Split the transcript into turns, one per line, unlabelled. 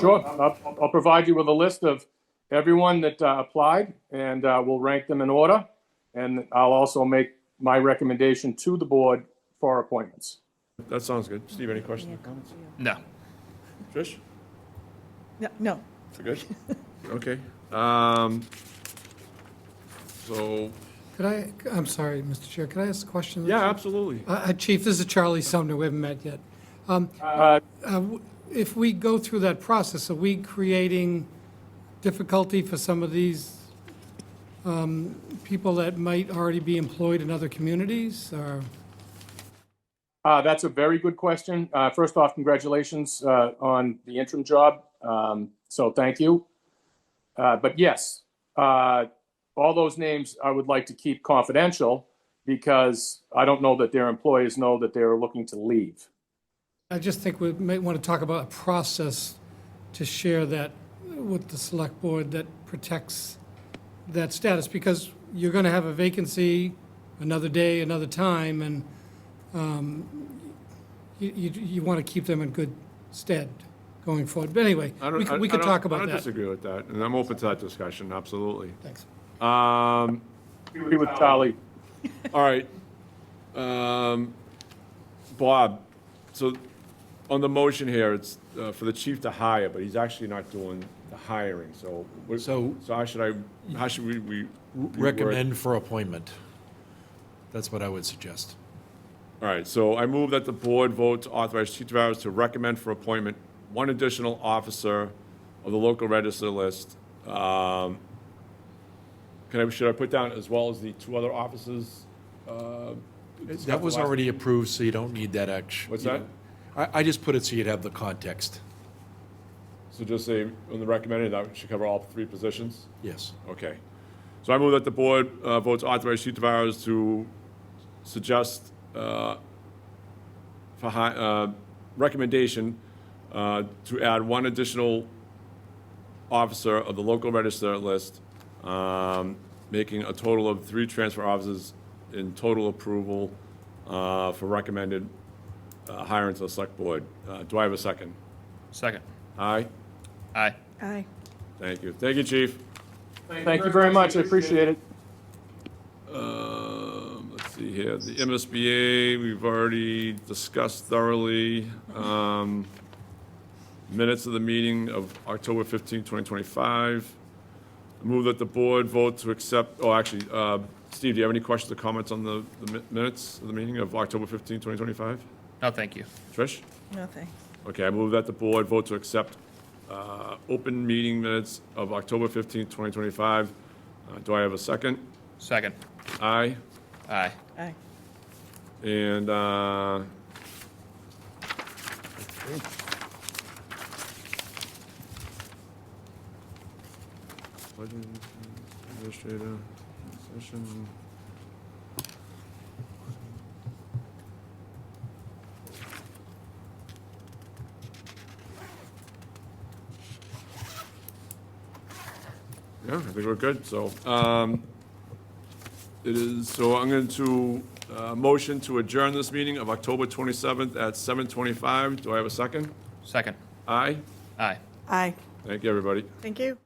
Sure, I'll, I'll provide you with a list of everyone that uh, applied, and uh, we'll rank them in order. And I'll also make my recommendation to the board for appointments.
That sounds good. Steve, any questions or comments?
No.
Trish?
No, no,
We're good? Okay. Um, so,
Could I, I'm sorry, Mr. Chair, could I ask a question?
yeah, absolutely.
Uh, uh, Chief, this is Charlie Sumner, we haven't met yet. Um,
Uh,
uh, w- If we go through that process, are we creating difficulty for some of these um, people that might already be employed in other communities, or?
Uh, that's a very good question. Uh, first off, congratulations uh, on the interim job. Um, so thank you. Uh, but yes, uh, all those names I would like to keep confidential because I don't know that their employers know that they're looking to leave.
I just think we might want to talk about a process to share that with the select board that protects that status, because you're going to have a vacancy another day, another time, and um, you, you, you want to keep them in good stead going forward. But anyway,
I
we
don't- I-
could, we
I
could
don't-
talk about
I don't
that.
disagree with that, and I'm open to that discussion, absolutely.
Thanks.
Um,
Agree with Charlie.
all right. Um, Bob, so on the motion here, it's uh, for the chief to hire, but he's actually not doing the hiring, so. what-
So-
So how should I, how should we, we?
Recommend for appointment. That's what I would suggest.
All right, so I move that the board vote to authorize Chief Tavares to recommend for appointment one additional officer of the local register list. Um, Can I, should I put down as well as the two other officers? uh, discussed
That was
last-
already approved, so you don't need that action.
What's that?
I, I just put it so you'd have the context.
So just say, on the recommended, that should cover all three positions?
Yes.
Okay. So I move that the board uh, votes authorize Chief Tavares to suggest uh, for hi, uh, recommendation uh, to add one additional officer of the local register list, um, making a total of three transfer officers in total approval uh, for recommended uh, hiring to the select board. Uh, Do I have a second?
Second.
Aye?
Aye.
aye.
Thank you. Thank you, Chief.
Thank you very much. I appreciate it.
Um, let's see here, the MSBA, we've already discussed thoroughly. Um, minutes of the meeting of October 15, 2025. Move that the board vote to accept, oh, actually, uh, Steve, do you have any questions or comments on the, the mi- minutes of the meeting of October 15, 2025?
No, thank you.
Trish?
No, thanks.
Okay, I move that the board vote to accept uh, open meeting minutes of October 15, 2025. Uh, Do I have a second?
Second.
Aye?
Aye.
Aye.
And, uh, Legend, administrator, session. Yeah, I think we're good, so, um, it is, so I'm going to, uh, motion to adjourn this meeting of October 27th at 7:25. Do I have a second?
Second.
Aye?
Aye.
Aye.
Thank you, everybody.
Thank you.